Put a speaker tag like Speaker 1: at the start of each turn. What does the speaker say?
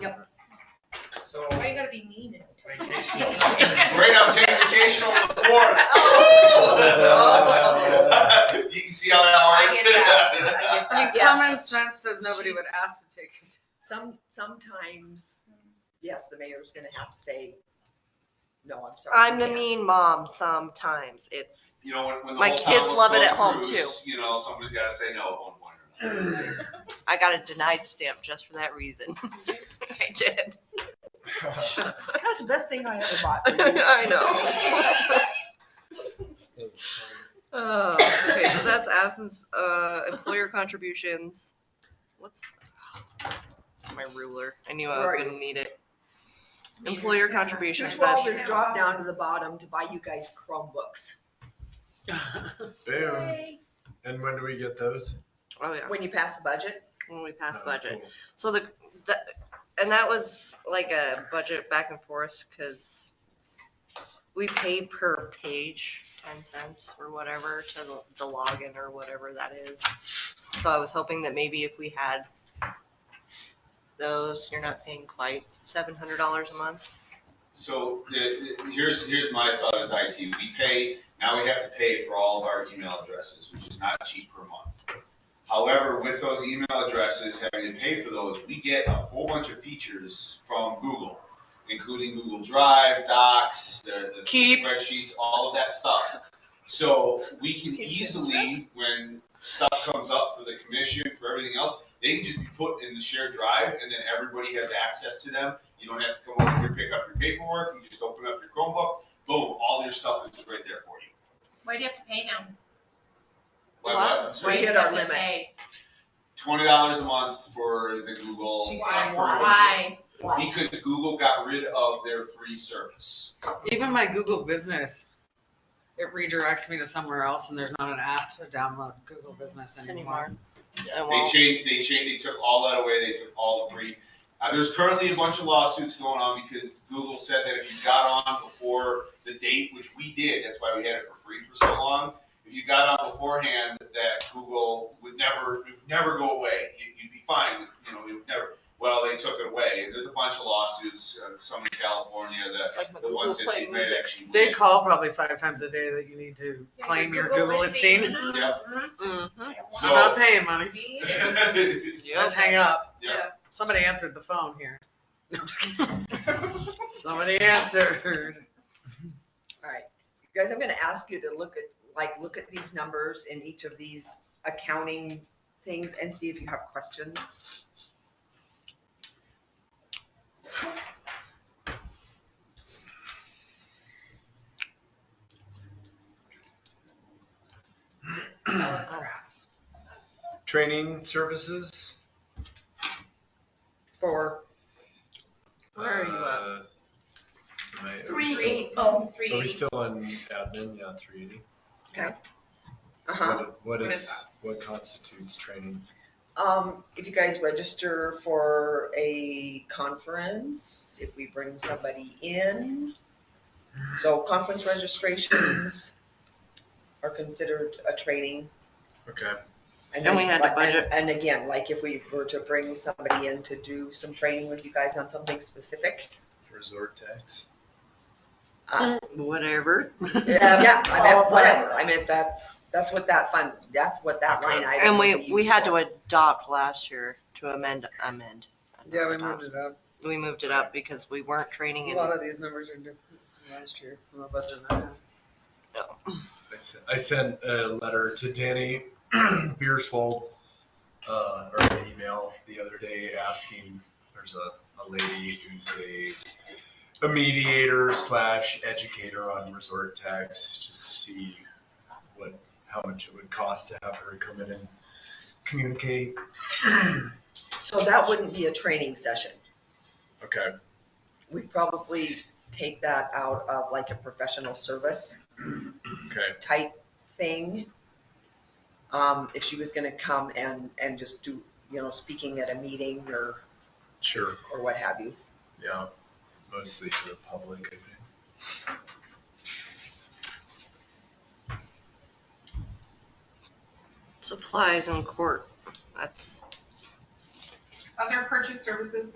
Speaker 1: Yep.
Speaker 2: So,
Speaker 3: Why you gotta be mean?
Speaker 2: vacation, great, I'm taking vacation over the fourth. You can see how that works.
Speaker 1: I mean,
Speaker 3: Yes.
Speaker 1: common sense says nobody would ask to take it.
Speaker 4: Some, sometimes, yes, the mayor's gonna have to say, no, I'm sorry.
Speaker 5: I'm
Speaker 4: you
Speaker 5: the
Speaker 4: can't."
Speaker 5: mean mom sometimes. It's,
Speaker 2: You know, when, when the
Speaker 5: My
Speaker 2: whole town
Speaker 5: kids
Speaker 2: was
Speaker 5: love it
Speaker 2: going
Speaker 5: at home,
Speaker 2: cruise, You know, somebody's gotta say no at one point or another.
Speaker 5: I got a denied stamp just for that reason. I did.
Speaker 4: That's the best thing I ever bought. for you.
Speaker 5: I know. Oh, okay, so that's absence, uh, employer contributions. What's? oh, My ruler. I knew I was
Speaker 4: Right.
Speaker 5: gonna need it. Employer
Speaker 4: Two
Speaker 5: contributions,
Speaker 4: twelve is
Speaker 5: that's,
Speaker 4: dropped down to the bottom to buy you guys Chromebooks
Speaker 6: Boom. um, And when do we get those?
Speaker 5: oh yeah,
Speaker 4: when you pass the budget.
Speaker 5: when we pass
Speaker 6: Oh,
Speaker 5: budget.
Speaker 6: cool.
Speaker 5: So the, the, and that was like a budget back and forth, cause we pay per page ten cents or whatever to the- the login or whatever that is. So I was hoping that maybe if we had those, you're not paying quite seven hundred dollars a month.
Speaker 2: So, the- the- here's, here's my thought as IT, we pay, now we have to pay for all of our email addresses, which is not cheap per month. However, with those email addresses, having to pay for those, we get a whole bunch of features from Google, including Google Drive, Docs, the the
Speaker 5: Keep.
Speaker 2: spreadsheets, all of that stuff. So, we can
Speaker 3: He says,
Speaker 2: easily, when stuff comes up for the commission, for everything else, they can just be put in the shared drive, and then everybody has access to them. You don't have to come over here, pick up your paperwork, you just open up your Chromebook, boom, all your stuff is right there for you.
Speaker 1: Why do you have to pay now?
Speaker 2: Like,
Speaker 5: Wow.
Speaker 2: what? I'm
Speaker 4: We
Speaker 2: sorry,
Speaker 4: hit our limit.
Speaker 2: Twenty dollars a month for the Google.
Speaker 4: She's
Speaker 2: for
Speaker 4: saying
Speaker 1: Why?
Speaker 4: Why?
Speaker 2: Because Google got rid of their free service.
Speaker 7: Even my Google Business, it redirects me to somewhere else and there's not an app to download Google Business anymore.
Speaker 5: I
Speaker 2: They
Speaker 5: won't.
Speaker 2: changed, they changed, they took all that away, they took all the free. Uh, there's currently a bunch of lawsuits going on because Google said that if you got on before the date, which we did, that's why we had it for free for so long. If you got on beforehand, that Google would never, would never go away. You- You'd be fine, you know, it would never. Well, they took it away. There's a bunch of lawsuits, uh, some in California,
Speaker 5: It's like my
Speaker 2: the, the
Speaker 5: Google
Speaker 2: ones that
Speaker 5: Play
Speaker 2: they might
Speaker 5: Music.
Speaker 2: actually.
Speaker 7: They call probably five times a day that you need to
Speaker 3: Yeah,
Speaker 7: claim your
Speaker 3: your Google
Speaker 7: Google
Speaker 3: listing.
Speaker 7: listing.
Speaker 2: Yeah.
Speaker 5: Mhm.
Speaker 7: I'm
Speaker 2: So-
Speaker 7: not paying money. Just hang up.
Speaker 2: Yeah.
Speaker 7: Somebody answered the phone here. No, I'm just kidding. Somebody answered.
Speaker 4: Alright, guys, I'm gonna ask you to look at, like, look at these numbers in each of these accounting things and see if you have questions.
Speaker 5: Uh,
Speaker 6: Training services?
Speaker 4: For,
Speaker 5: Where are you at?
Speaker 6: Uh, am I- are we
Speaker 1: Three,
Speaker 6: still-
Speaker 1: three, oh,
Speaker 6: Are we
Speaker 1: three.
Speaker 6: still on admin? Yeah, three eighty.
Speaker 4: uh-huh,
Speaker 6: What
Speaker 1: What is
Speaker 6: is, what constitutes training?
Speaker 4: um, if you guys register for a conference, if we bring somebody in. So conference registrations are considered a training.
Speaker 6: Okay.
Speaker 5: And we
Speaker 4: then,
Speaker 5: had to
Speaker 4: like,
Speaker 5: budget-
Speaker 4: And and again, like if we were to bring somebody in to do some training with you guys on something specific. uh,
Speaker 6: Resort tax?
Speaker 5: Whatever.
Speaker 4: Yeah, I meant
Speaker 3: Oh,
Speaker 4: whatever, I meant that's, that's what that fund, that's what that line item.
Speaker 5: And
Speaker 4: would
Speaker 5: we,
Speaker 4: be
Speaker 5: we had
Speaker 4: used
Speaker 5: to adopt last year to amend, amend.
Speaker 7: Yeah, we
Speaker 5: Adopt.
Speaker 7: moved it up.
Speaker 5: We moved it up because we weren't training
Speaker 7: A
Speaker 5: in
Speaker 7: lot of these numbers are different from last year from the budget. I had.
Speaker 6: I s- I sent a letter to Danny Beerswold, uh, or an email the other day asking, there's a, a lady who's a, a mediator slash educator on resort tax, just to see what, how much it would cost to have her come in and communicate.
Speaker 4: for. So that wouldn't be a training session,
Speaker 6: Okay,
Speaker 4: we'd probably take that out of like a professional service
Speaker 6: okay,
Speaker 4: type thing. Um, if she was gonna come and, and just do, you know, speaking at a meeting or,
Speaker 6: sure,
Speaker 4: or what have you.
Speaker 6: yeah, mostly to the public, I think.
Speaker 5: supplies in court. That's
Speaker 1: Other purchase services